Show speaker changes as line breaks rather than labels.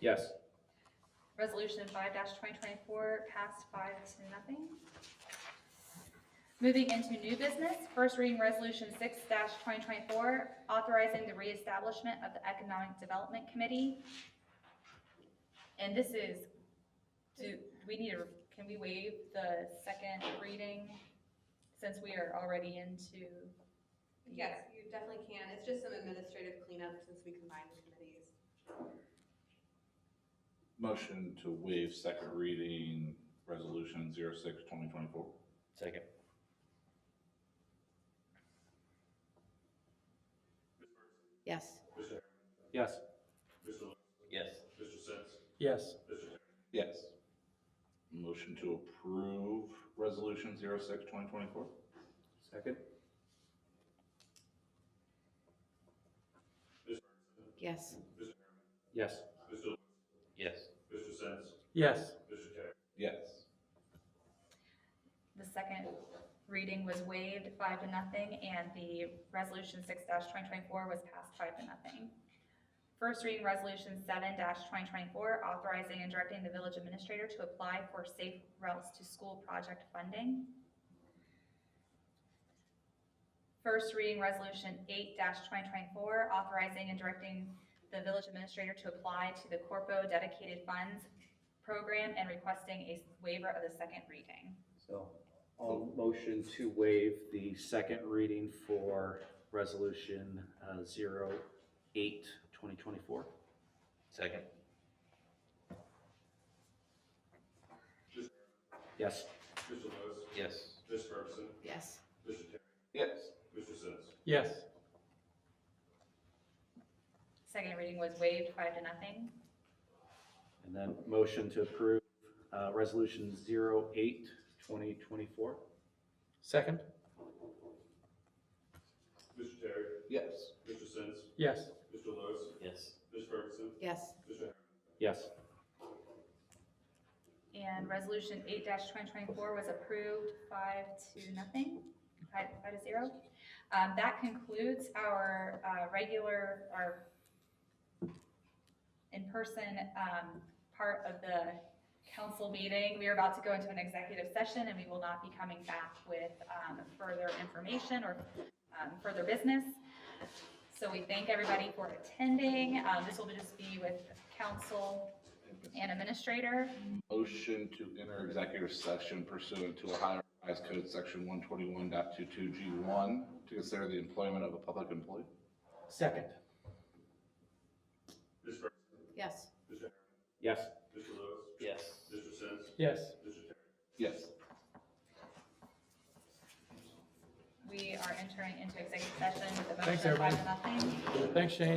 Yes.
Resolution five twenty twenty-four passed five to nothing. Moving into new business, first reading resolution six twenty twenty-four, authorizing the reestablishment of the Economic Development Committee. And this is, do, we need to, can we waive the second reading since we are already into?
Yes, you definitely can. It's just some administrative cleanup since we combined the committees.
Motion to waive second reading, resolution 06 2024.
Second.
yes,
Yes. Yes.
yes,
Yes. Motion to approve resolution 06 2024.
Second.
yes,
Yes. Yes.
yes,
Yes.
The second reading was waived five to nothing, and the resolution six twenty twenty-four was passed five to nothing. First reading resolution seven twenty twenty-four, authorizing and directing the village administrator to apply for safe routes to school project funding. First reading resolution eight twenty twenty-four, authorizing and directing the village administrator to apply to the Corpo Dedicated Funds Program and requesting a waiver of the second reading.
So I'll motion to waive the second reading for resolution uh, 08 2024. Second. Yes. Yes.
yes,
Yes.
yes,
Second reading was waived, five to nothing.
And then motion to approve uh, resolution 08 2024.
second,
Mr. Terry,
Yes.
Mr. Sins,
yes,
Mr. Lewis,
Yes.
Ms. Ferguson,
yes,
Mr.
Yes.
And resolution eight twenty twenty-four was approved, five to nothing, five, five to zero. Um, that concludes our, uh, regular, our in-person, um, part of the council meeting. We are about to go into an executive session and we will not be coming back with, um, further information or, um, further business. So we thank everybody for attending. Um, this will just be with council and administrator.
Motion to enter executive session pursuant to Ohio Revised Code Section 121.22 G one to consider the employment of a public employee.
second,
Ms. Ferguson,
yes.
Mr. Harriman,
Yes.
Mr. Lewis,
Yes.
Mr. Sins,
yes.
Mr. Terry.
Yes.
We are entering into executive session with a
Thanks,
motion of five
everybody.
to nothing.
Thanks, Shane.